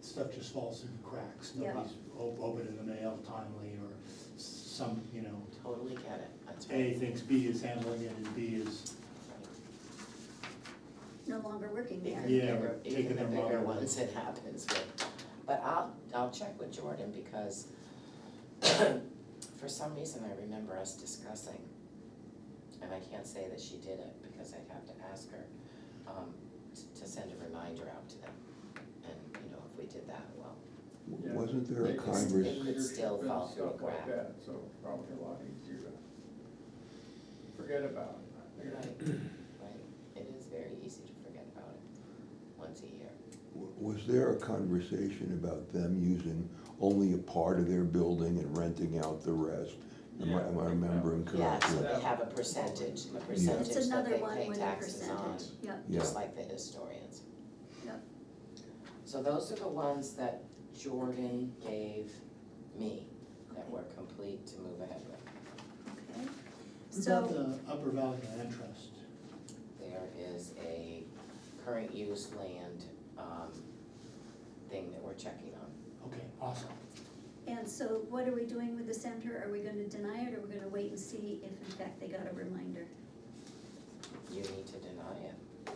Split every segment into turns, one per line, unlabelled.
stuff just falls through the cracks.
Yeah.
Nobody's o- open in the mail timely or s- some, you know,
Totally get it, that's right.
A thinks B is handling it and B is,
no longer working there.
Even
Yeah,
bigger,
taking
even the
them
bigger
out.
ones it happens with. But I'll, I'll check with Jordan because for some reason I remember us discussing, and I can't say that she did it because I'd have to ask her, um, t- to send a reminder out to them. And, you know, if we did that, well,
Yeah.
Wasn't there a
It
was-
convers,
it could still
Leadership
fall
and
through a
stuff like
crack.
that, So probably a lot easier to forget about. I
right,
guess.
right, it is very easy to forget about it once a year.
was there a conversation about them using only a part of their building and renting out the rest? Am I, am I remembering
Yeah, so
correctly?
they have a percentage, a percentage
It's
that
another
they
one
pay
with a
taxes on,
percentage, yeah,
Yeah,
just like the historians.
Yep.
So those are the ones that Jordan gave me that were complete to move ahead with.
okay.
what about
So,
the Upper Valley Land Trust?
There is a current use land, um, thing that we're checking on.
Okay, awesome.
and so what are we doing with the center? Are we gonna deny it or we're gonna wait and see if in fact they got a reminder?
You need to deny it,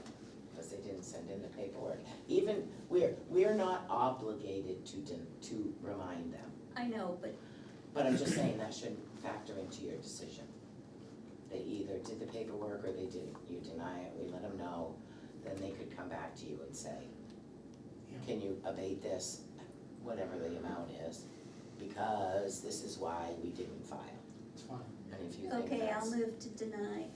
because they didn't send in the paperwork. Even, we're, we're not obligated to, den- to remind them.
I know, but
But I'm just saying that should factor into your decision. They either did the paperwork or they didn't, you deny it, we let them know, then they could come back to you and say,
Yeah.
can you abate this, whatever the amount is, because this is why we didn't file.
It's fine.
And if you think that's.
Okay, I'll move to deny.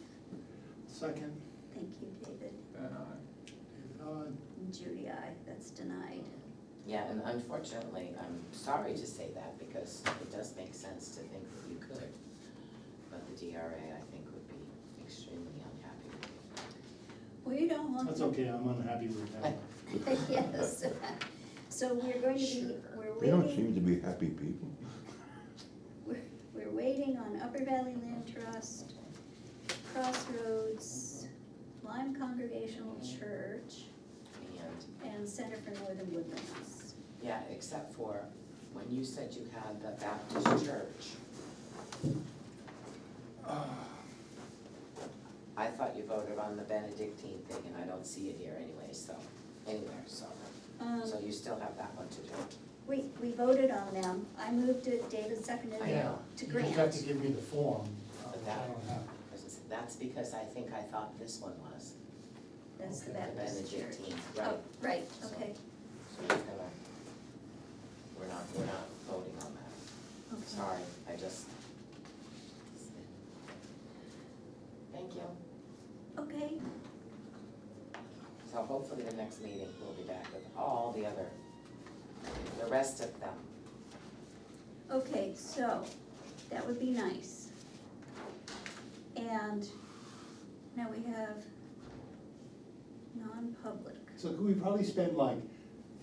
Second,
Thank you, David.
Then I,
David, aye.
And Judy, I, that's denied.
Yeah, and unfortunately, I'm sorry to say that because it does make sense to think that you could. But the DRA, I think, would be extremely unhappy with you.
We don't want.
That's okay, I'm unhappy with that.
Yes. So we're going to be,
Sure.
we're
they don't
waiting,
seem to be happy people.
we're- we're waiting on Upper Valley Land Trust, Crossroads, Lyme Congregational Church,
And,
and Center for Northern Woodlands.
yeah, except for when you said you had the Baptist church, I thought you voted on the Benedictine thing and I don't see it here anyway, so, anywhere, so.
Um,
So you still have that one to do.
we, we voted on them. I moved it, David seconded
I
it
know,
to
You just have to
grant.
give me the form, uh,
But
which I
that-
don't have.
'cause that's because I think I thought this one was,
That's the
Okay.
the
Baptist Church.
Benedictine,
Oh,
right?
right,
So-
okay,
So we're gonna, we're not, we're not voting on that.
okay.
Sorry, I just. Thank you.
Okay,
So hopefully the next meeting, we'll be back with all the other, the rest of them.
okay, so, that would be nice. And now we have non-public.
So could we probably spend like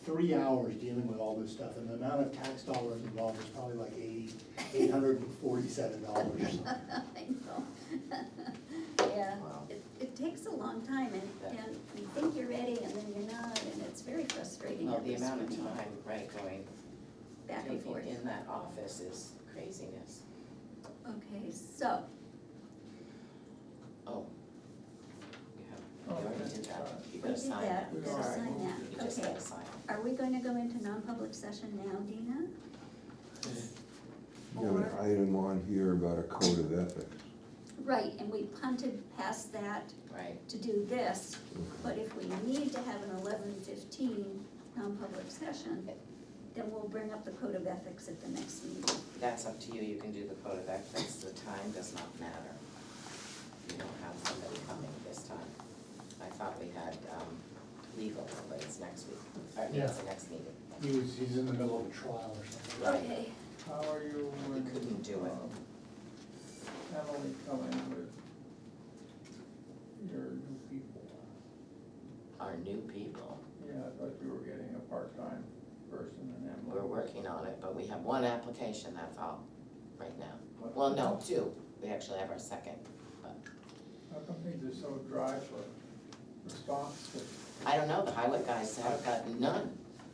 three hours dealing with all this stuff, and the amount of tax dollars involved is probably like eighty, eight hundred and forty-seven dollars.
I know. Yeah,
Wow.
it, it takes a long time and,
Yeah.
and you think you're ready and then you're not, and it's very frustrating.
Well,
at
the
this
amount of
point.
time, right, going,
Back and
taking
forth.
in that office is craziness.
Okay, so,
Oh. You
Oh,
have, you already
okay.
did that.
we
You gotta
did
sign that.
that, we
All
gotta
right.
sign
You
that,
just
okay.
gotta sign.
Are we going to go into non-public session now, Dina?
You have an
Or-
item on here about a code of ethics.
Right, and we punted past that
Right,
to do this,
Okay.
but if we need to have an eleven fifteen non-public session, then we'll bring up the code of ethics at the next meeting.
that's up to you, you can do the code of ethics, the time does not matter. You don't have somebody coming this time. I thought we had, um, legal, but it's next week, or no, it's the next meeting.
He was, he's in the middle of a trial or something.
Right.
Okay,
how are you
You
with?
couldn't do it.
um, Emily coming with your new people?
Our new people,
Yeah, I thought you were getting a part-time person and Emily.
we're working on it, but we have one application, that's all, right now. Well, no, two, we actually have our second.
How come things are so dry for response to
I don't know, the highway guys have gotten none,